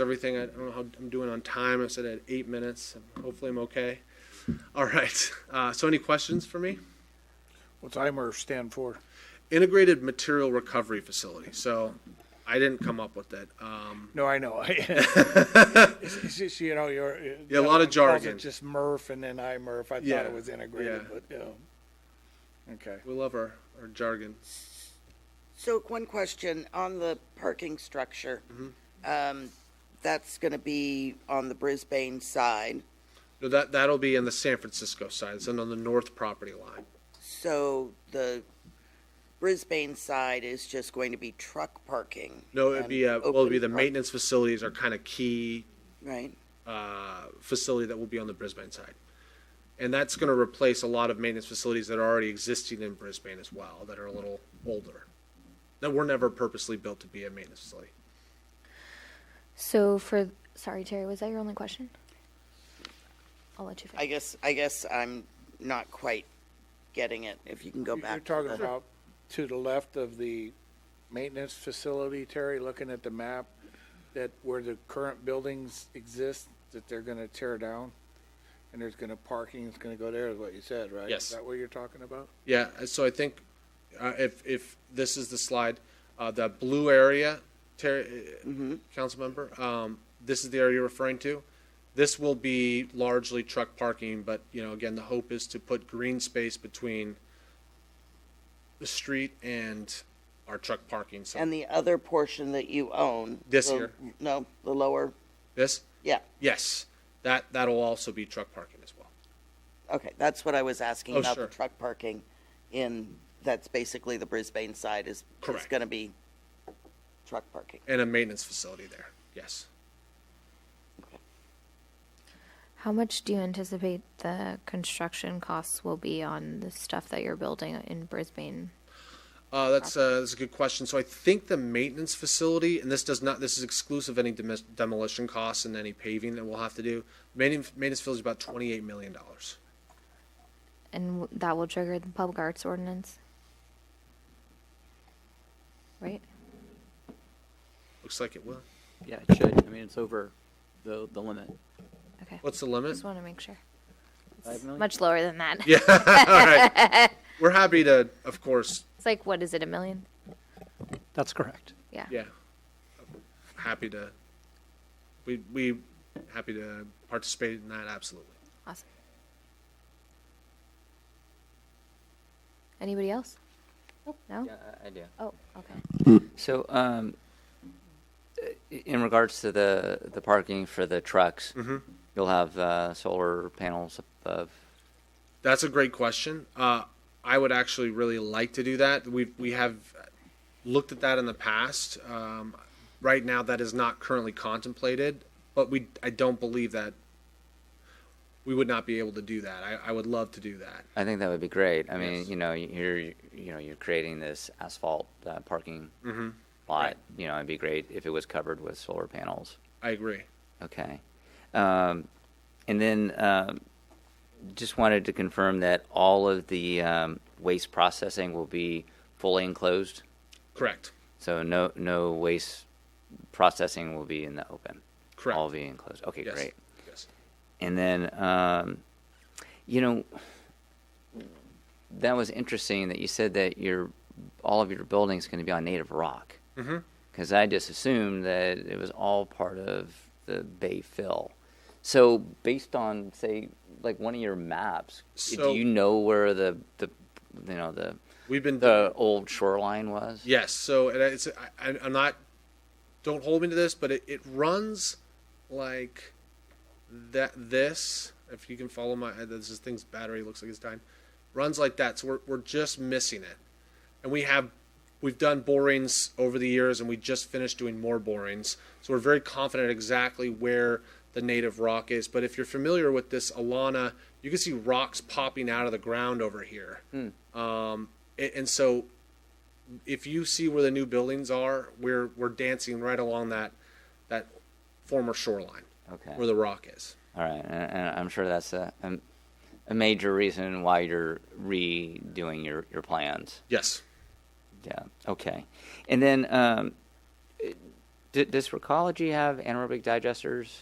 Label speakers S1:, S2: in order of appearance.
S1: everything. I don't know how I'm doing on time. I said I had eight minutes. Hopefully, I'm okay. All right. Uh, so, any questions for me?
S2: What's IMER stand for?
S1: Integrated Material Recovery Facility. So, I didn't come up with that. Um,
S2: No, I know. It's- it's just, you know, you're.
S1: Yeah, a lot of
S2: everyone calls it
S1: jargon.
S2: Just MRF and then IMERF. I
S1: Yeah,
S2: thought it was integrated,
S1: yeah.
S2: but, yeah. Okay.
S1: we love our, our jargon.
S3: So one question on the parking structure.
S1: Mm-hmm.
S3: Um, That's going to be on the Brisbane side.
S1: No, that that'll be in the San Francisco side. It's on the north property line.
S3: So the Brisbane side is just going to be truck parking.
S1: No, it'd
S3: and
S1: be uh, well, it'd be the
S3: open park-
S1: maintenance facilities are kind of key
S3: Right.
S1: uh, facility that will be on the Brisbane side. And that's going to replace a lot of maintenance facilities that are already existing in Brisbane as well, that are a little older, that were never purposely built to be a maintenance facility.
S4: So for sorry, Terry, was that your only question? I'll let you
S3: I
S4: finish.
S3: guess, I guess I'm not quite getting it. If you can go back.
S2: You're
S3: to
S2: talking
S3: the-
S2: about to the left of the maintenance facility, Terry, looking at the map, that where the current buildings exist, that they're gonna tear down? And there's gonna, parking is gonna go there, is what you said, right?
S1: Yes.
S2: Is that what you're talking about?
S1: Yeah, uh, so I think uh, if, if this is the slide, uh, the blue area, Terry, uh, council member, um, this is the area you're referring to. This will be largely truck parking, but, you know, again, the hope is to put green space between the street and our truck parking. So
S3: And the other portion that you own.
S1: This
S3: the-
S1: here.
S3: No, the lower,
S1: This?
S3: yeah.
S1: Yes. That, that'll also be truck parking as well.
S3: Okay, that's what I was asking
S1: Oh,
S3: about the
S1: sure.
S3: truck parking in, that's basically the Brisbane side is, is
S1: Correct.
S3: gonna be truck parking.
S1: And a maintenance facility there. Yes.
S4: How much do you anticipate the construction costs will be on the stuff that you're building in Brisbane?
S1: Uh, that's, uh, that's a good question. So I think the maintenance facility, and this does not, this is exclusive of any demis- demolition costs and any paving that we'll have to do. Maintenance, maintenance facility is about $28 million.
S4: And w- that will trigger the public arts ordinance? Right?
S1: Looks like it will.
S5: Yeah, it should. I mean, it's over the, the limit.
S4: Okay.
S1: What's the limit?
S4: Just want to make sure.
S5: Five million?
S4: Much lower than that.
S1: Yeah, all right. We're happy to, of course,
S4: It's like, what is it, a million?
S6: That's correct.
S4: Yeah.
S1: yeah, happy to, we, we happy to participate in that, absolutely.
S4: Awesome. Anybody else? No?
S7: Yeah, I- I do.
S4: Oh, okay.
S7: So, um, i- in regards to the, the parking for the trucks, you'll have, uh, solar panels above.
S1: That's a great question. Uh, I would actually really like to do that. We've, we have looked at that in the past. Um, right now, that is not currently contemplated, but we, I don't believe that we would not be able to do that. I, I would love to do that.
S7: I think that would be great. I mean,
S1: Yes.
S7: you know, you're, you know, you're creating this asphalt, uh, parking lot. You know, it'd be great if it was covered with solar panels.
S1: I agree.
S7: Okay. Um, and then um, just wanted to confirm that all of the um, waste processing will be fully enclosed.
S1: Correct.
S7: So no no waste processing will be in the open.
S1: Correct.
S7: All be enclosed. Okay,
S1: Yes.
S7: great.
S1: Yes.
S7: And then um, you know that was interesting that you said that your all of your buildings going to be on native rock.
S1: Mm-hmm.
S7: Because I just assumed that it was all part of the bay fill. So based on say like one of your maps,
S1: So-
S7: do you know where the the you know the
S1: We've been
S7: the old shoreline was?
S1: Yes. So and it's I, I- I'm not. Don't hold me to this, but it, it runs like that. This, if you can follow my uh, this is thing's battery looks like it's dying, runs like that. So we're we're just missing it, and we have we've done borings over the years, and we just finished doing more borings. So we're very confident exactly where the native rock is. But if you're familiar with this Alana, you can see rocks popping out of the ground over here. Um, a- and so if you see where the new buildings are, we're we're dancing right along that that former shoreline
S7: Okay.
S1: where the rock is.
S7: All right, and, and I'm sure that's a, a a major reason why you're redoing your your plans.
S1: Yes.
S7: Yeah. Okay. And then um, Did, does Recology have anaerobic digesters?